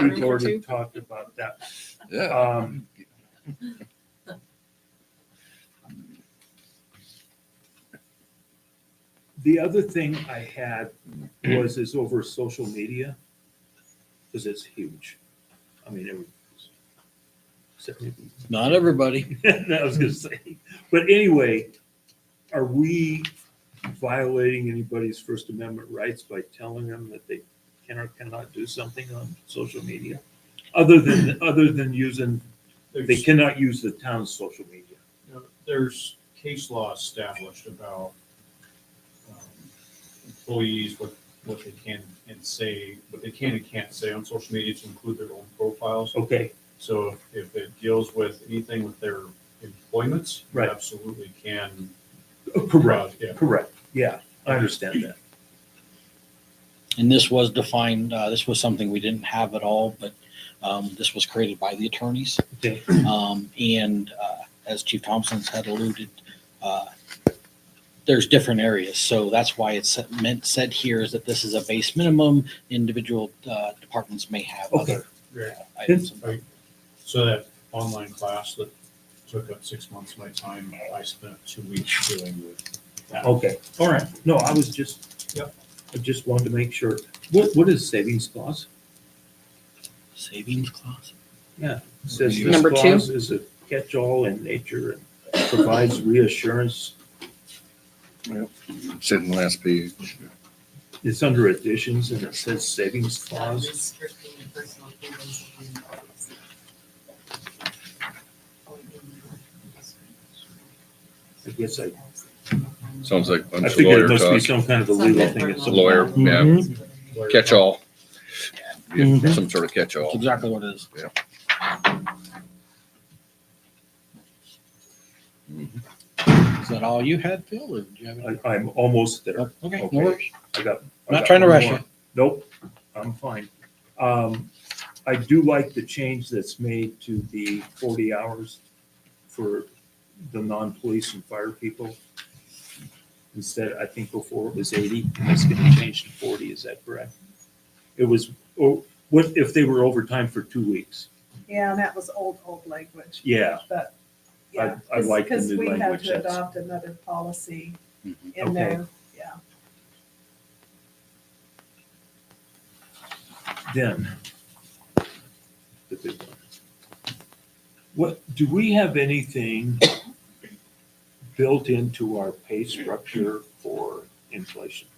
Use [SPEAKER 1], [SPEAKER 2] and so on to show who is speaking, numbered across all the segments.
[SPEAKER 1] We've already talked about that.
[SPEAKER 2] Uh,
[SPEAKER 3] Yeah.
[SPEAKER 1] Um, The other thing I had was is over social media, because it's huge. I mean, it was. except maybe-
[SPEAKER 3] Not everybody.
[SPEAKER 1] I was gonna say, but anyway, are we violating anybody's First Amendment rights by telling them that they can or cannot do something on social media? Other than, other than using They
[SPEAKER 4] There's,
[SPEAKER 1] cannot use the town's social media.
[SPEAKER 4] you know, there's case law established about um, employees, what, what they can and say, what they can and can't say on social media to include their own profiles.
[SPEAKER 1] Okay,
[SPEAKER 4] So if it deals with anything with their employments, you
[SPEAKER 1] Right.
[SPEAKER 4] absolutely can.
[SPEAKER 1] correct,
[SPEAKER 4] Yeah.
[SPEAKER 1] correct. Yeah, I understand that.
[SPEAKER 2] And this was defined, uh, this was something we didn't have at all, but, um, this was created by the attorneys.
[SPEAKER 1] Okay.
[SPEAKER 2] Um, and, uh, as Chief Thompson's had alluded, uh, there's different areas. So that's why it's meant, said here is that this is a base minimum. Individual, uh, departments may have
[SPEAKER 1] Okay,
[SPEAKER 2] other
[SPEAKER 4] Great.
[SPEAKER 2] items.
[SPEAKER 4] So that online class that took up six months of my time, I spent two weeks dealing with that.
[SPEAKER 1] okay, all right. No, I was just,
[SPEAKER 4] Yep.
[SPEAKER 1] I just wanted to make sure. What, what is savings clause?
[SPEAKER 2] Savings clause.
[SPEAKER 1] It Says this
[SPEAKER 5] Number two.
[SPEAKER 1] clause is a catch-all in nature and provides reassurance.
[SPEAKER 3] It's in the last page.
[SPEAKER 1] It's under additions and it says savings
[SPEAKER 6] not
[SPEAKER 1] clause.
[SPEAKER 6] restricting personal freedoms and rights.
[SPEAKER 1] I guess I,
[SPEAKER 3] Sounds like a
[SPEAKER 1] I
[SPEAKER 3] bunch of
[SPEAKER 1] think it
[SPEAKER 3] lawyer
[SPEAKER 1] must be
[SPEAKER 3] talk.
[SPEAKER 1] some kind of a legal thing. It's
[SPEAKER 3] a lawyer, yeah. Catch-all. Yeah, Some sort
[SPEAKER 2] That's
[SPEAKER 3] of catch-all.
[SPEAKER 2] exactly what it is. Is that all you had, Phil, or do you have any?
[SPEAKER 1] I, I'm almost there.
[SPEAKER 2] Okay, no
[SPEAKER 1] Okay.
[SPEAKER 2] worries.
[SPEAKER 1] I got. I
[SPEAKER 2] Not
[SPEAKER 1] got
[SPEAKER 2] trying to
[SPEAKER 1] one
[SPEAKER 2] rush
[SPEAKER 1] more.
[SPEAKER 2] you.
[SPEAKER 1] Nope, I'm fine. Um, I do like the change that's made to the forty hours for the non-police and fire people. Instead, I think before it was eighty, and it's gonna change to forty, is that correct? It was, oh, what if they were overtime for two weeks?
[SPEAKER 7] Yeah, and that was old, old language,
[SPEAKER 1] Yeah,
[SPEAKER 7] but,
[SPEAKER 1] I-
[SPEAKER 7] yeah.
[SPEAKER 1] I like the new
[SPEAKER 7] Because we had
[SPEAKER 1] language,
[SPEAKER 7] to
[SPEAKER 1] that's-
[SPEAKER 7] adopt another policy
[SPEAKER 2] Mhm.
[SPEAKER 1] Okay.
[SPEAKER 7] in there, yeah.
[SPEAKER 1] then. The big one. What, do we have anything built into our pay structure for inflation?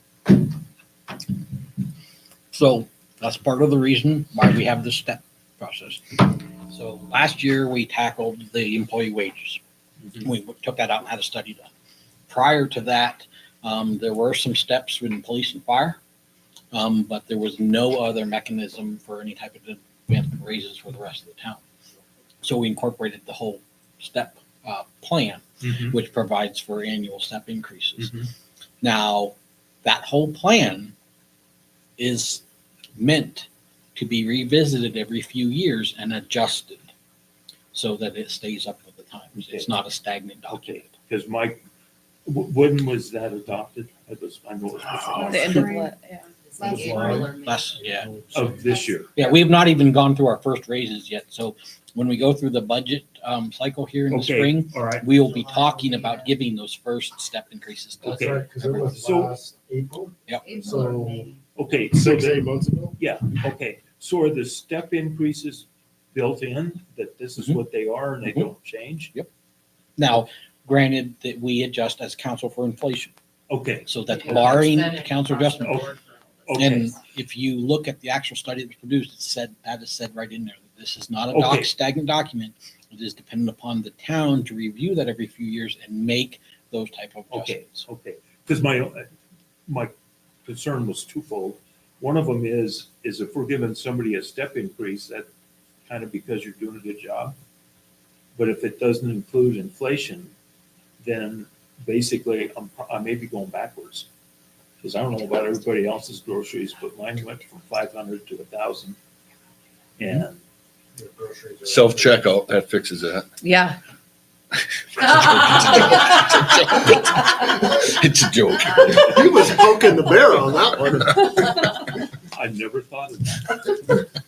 [SPEAKER 2] So that's part of the reason why we have this step process. So last year, we tackled the employee wages. We took that out and had a study done. Prior to that, um, there were some steps within police and fire. Um, but there was no other mechanism for any type of advancement raises for the rest of the town. So we incorporated the whole step, uh, plan,
[SPEAKER 8] Mm-hmm.
[SPEAKER 1] Mm-hmm.
[SPEAKER 2] which provides for annual step increases. Now, that whole plan is meant to be revisited every few years and adjusted so that it stays up with the times. It's not a stagnant document.
[SPEAKER 1] Because my, wh- when was that adopted? It was, I know it was
[SPEAKER 5] The end of what, yeah.
[SPEAKER 6] Like
[SPEAKER 4] Last
[SPEAKER 6] April
[SPEAKER 4] line.
[SPEAKER 6] or May.
[SPEAKER 2] Less, yeah.
[SPEAKER 1] of this year.
[SPEAKER 2] Yeah, we've not even gone through our first raises yet. So when we go through the budget um, cycle here in the
[SPEAKER 1] Okay.
[SPEAKER 2] spring,
[SPEAKER 1] All right,
[SPEAKER 2] we will be talking about giving those first step increases. to
[SPEAKER 1] Okay.
[SPEAKER 8] Because it was
[SPEAKER 1] So-
[SPEAKER 8] last April,
[SPEAKER 6] April or May.
[SPEAKER 1] okay, so
[SPEAKER 8] six,
[SPEAKER 1] the
[SPEAKER 8] eight months ago.
[SPEAKER 1] yeah, okay. So are the step increases built in, that this is
[SPEAKER 2] Mhm.
[SPEAKER 1] what they are and they
[SPEAKER 2] Mhm.
[SPEAKER 1] don't change?
[SPEAKER 2] Now, granted that we adjust as council for inflation,
[SPEAKER 1] Okay,
[SPEAKER 2] so that
[SPEAKER 6] Okay.
[SPEAKER 2] barring
[SPEAKER 6] Percentage
[SPEAKER 2] council
[SPEAKER 6] across the
[SPEAKER 2] adjustment,
[SPEAKER 6] board for all of us.
[SPEAKER 1] Okay.
[SPEAKER 2] And if you look at the actual study that was produced, it said, that is said right in there, that this is not a
[SPEAKER 1] Okay.
[SPEAKER 2] doc, stagnant document. It is dependent upon the town to review that every few years and make those type of
[SPEAKER 1] Okay.
[SPEAKER 2] adjustments.
[SPEAKER 1] Okay, because my, my concern was twofold. One of them is, is if we're giving somebody a step increase, that kind of because you're doing a good job. But if it doesn't include inflation, then basically I'm, I may be going backwards. Because I don't know about everybody else's groceries, but mine went from five hundred to a thousand. And
[SPEAKER 4] Your groceries are-
[SPEAKER 3] Self-checkout, that fixes that.
[SPEAKER 5] Yeah.
[SPEAKER 3] It's a joke.
[SPEAKER 8] He was poking the bear on that one.
[SPEAKER 1] I never thought of that.